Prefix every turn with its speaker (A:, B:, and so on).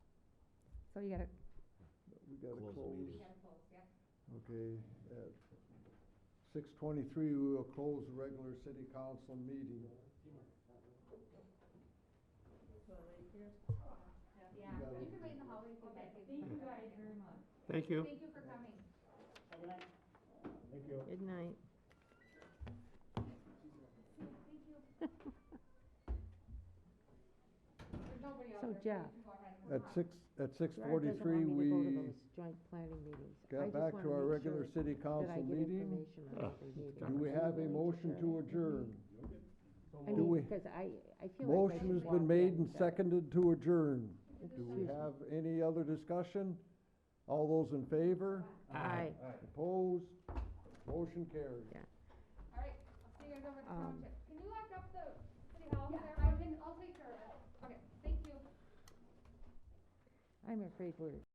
A: So you gotta,
B: We gotta
C: Close the
B: close,
C: meeting.
B: okay, at six twenty-three, we will close the regular city council meeting.
A: yeah,
B: You gotta-
A: you can wait in the hallway for that.
D: Thank you guys very much.
E: Thank you.
A: Thank you for coming.
D: Thank you.
F: Good night.
A: There's nobody out
F: So
A: there. you
F: Jeff,
A: can go ahead and
B: At
A: come out.
B: six, at six
F: Gerard doesn't
B: forty-three,
F: want me to go to
B: we
F: those joint planning meetings. I
B: got
F: just
B: back
F: wanna
B: to our
F: make
B: regular
F: sure
B: city
F: that I
B: council
F: get
B: meeting.
F: information on every meeting.
B: Do we have a motion to adjourn?
F: I
B: do
F: mean,
B: we-
F: because I, I feel like I
B: Motion
F: should
B: has
F: walk
B: been made
F: in,
B: and
F: but-
B: seconded to adjourn. Do we
F: Excuse me.
B: have any other discussion? All those in favor?
F: Aye.
B: Opposed? Motion carried.
A: All right, I'll see you guys over at the
F: Um,
A: township. Can you lock up the city hall? Yeah, I can, I'll take care of it. Okay, thank you.
F: I'm afraid we're